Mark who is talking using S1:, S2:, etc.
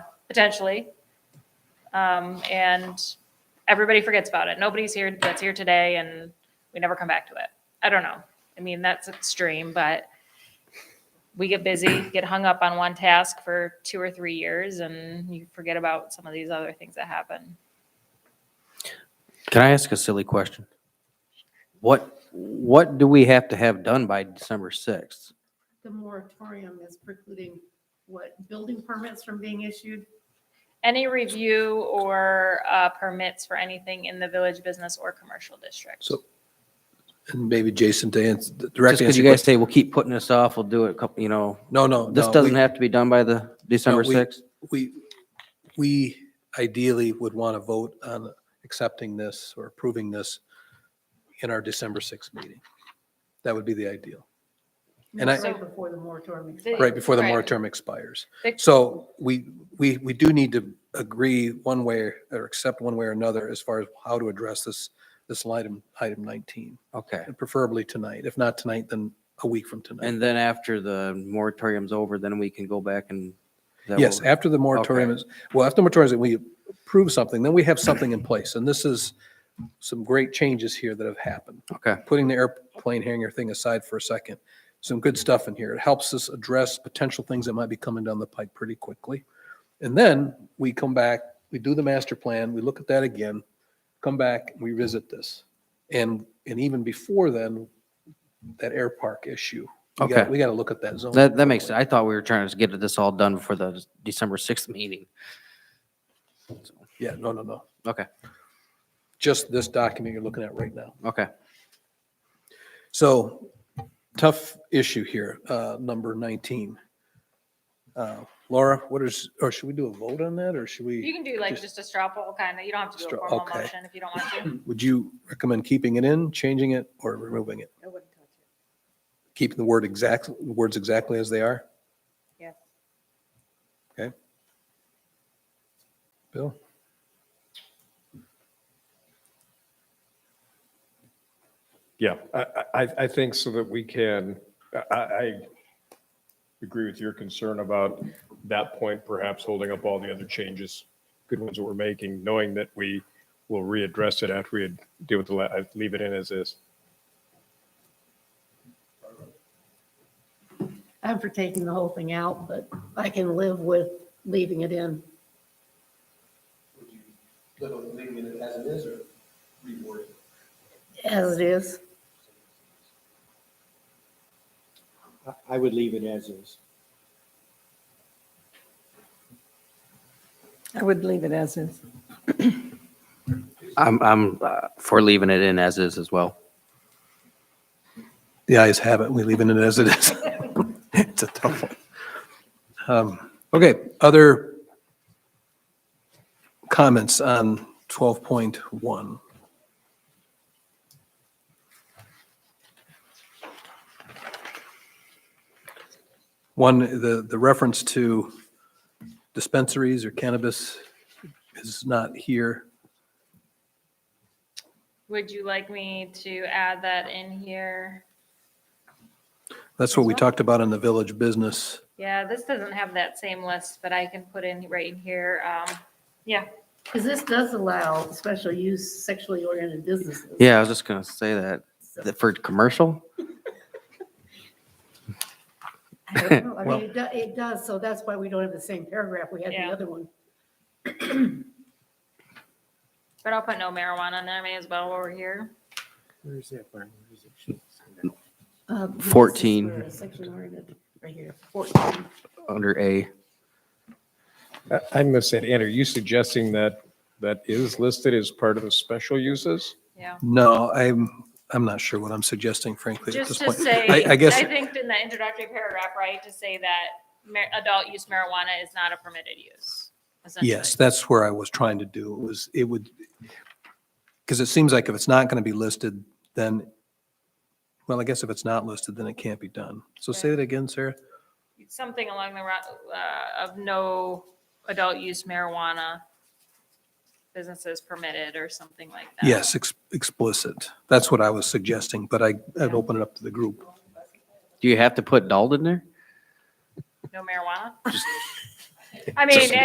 S1: potentially. Um, and everybody forgets about it. Nobody's here that's here today and we never come back to it. I don't know. I mean, that's extreme, but we get busy, get hung up on one task for two or three years and you forget about some of these other things that happen.
S2: Can I ask a silly question? What, what do we have to have done by December 6th?
S3: the moratorium is precluding what, building permits from being issued?
S1: Any review or uh, permits for anything in the village business or commercial district?
S4: So- And maybe Jason to answer,
S2: Just
S4: direct
S2: because
S4: answer.
S2: you
S4: your
S2: guys
S4: question.
S2: say, we'll keep putting this off, we'll do it a couple, you know,
S4: No, no.
S2: this
S4: no, we-
S2: doesn't have to be done by the December
S4: No, we-
S2: 6th?
S4: We, we ideally would want to vote on accepting this or approving this in our December 6th meeting. That would be the ideal, And I-
S3: Right before the moratorium
S1: The-
S3: expires.
S4: right before the
S1: Right.
S4: moratorium expires.
S1: Vic-
S4: So we, we, we do need to agree one way or accept one way or another as far as how to address this, this item, item 19,
S2: Okay.
S4: and preferably tonight. If not tonight, then a week from tonight.
S2: And then after the moratorium's over, then we can go back and. is that
S4: Yes,
S2: what-
S4: after the moratorium
S2: Okay.
S4: is, well, after the moratorium, is we approve something, then we have something in place. And this is some great changes here that have happened.
S2: Okay,
S4: Putting the airplane hangar thing aside for a second, some good stuff in here. It helps us address potential things that might be coming down the pipe pretty quickly. And then we come back, we do the master plan, we look at that again, come back, we visit this. And, and even before then, that air park issue. We got-
S2: Okay.
S4: We got to look at that zone.
S2: that, that makes, I thought we were trying to get this all done before the December 6th meeting.
S4: Yeah, no, no, no.
S2: Okay,
S4: Just this document you're looking at right now.
S2: okay.
S4: So tough issue here, uh, number 19. Uh, Laura, what is, or should we do a vote on that or should
S1: You
S4: we,
S1: can do like
S4: Just-
S1: just a straw poll kind of, you don't have to do a
S4: Straw-
S1: formal
S4: okay.
S1: motion if you don't want to.
S4: would you recommend keeping it in, changing it or removing it?
S3: I wouldn't touch it.
S4: Keeping the word exact, words exactly as they are?
S3: Yes.
S4: Okay. Bill?
S5: Yeah, I, I, I think so that we can, I, I agree with your concern about that point perhaps holding up all the other changes, good ones that we're making, knowing that we will readdress it after we deal with the, la- I leave it in as is.
S3: I'm for taking the whole thing out, but I can live with leaving it in.
S4: Leaving it as it is or rewording?
S3: As it is,
S6: I- I would leave it as is.
S7: I would leave it as is.
S2: I'm, I'm uh, for leaving it in as is as well.
S4: The ayes have it. We leaving it as it is. It's a tough one. Um, Okay, other comments on 12.1? One, the, the reference to dispensaries or cannabis is not here.
S1: Would you like me to add that in here?
S4: That's what we talked about in the village business.
S1: Yeah, this doesn't have that same list, but I can put in right in here. Um, yeah,
S3: because this does allow special use sexually oriented businesses.
S2: Yeah, I was just gonna say that,
S3: So,
S2: that for commercial?
S3: I don't know. I mean, it do- it does, so that's why we don't have the same paragraph we had in
S1: Yeah.
S3: the other one.
S1: but I'll put no marijuana in there, may as well while we're here.
S6: Where is that line? Where is it?
S3: Uh, this is
S2: 14.
S3: where Sexually oriented, right here, 14.
S2: Under A.
S5: I, I must say, Ann, are you suggesting that that is listed as part of the special uses?
S1: Yeah.
S4: No, I'm, I'm not sure what I'm suggesting frankly at
S1: Just
S4: this
S1: to
S4: point.
S1: say,
S4: I, I guess,
S1: I think in the introductory paragraph, right, to say that mar- adult use marijuana is not a permitted use. essentially.
S4: yes, that's where I was trying to do. It was, it would, because it seems like if it's not going to be listed, then, well, I guess if it's not listed, then it can't be done. So say
S1: Right.
S4: that again, Sarah.
S1: Something along the, ro- uh, of no adult use marijuana businesses permitted or something like that.
S4: Yes, ex- explicit. That's what I was suggesting, but I, I'd open it up to the group.
S2: Do you have to put Dalton in there?
S1: No marijuana? I mean,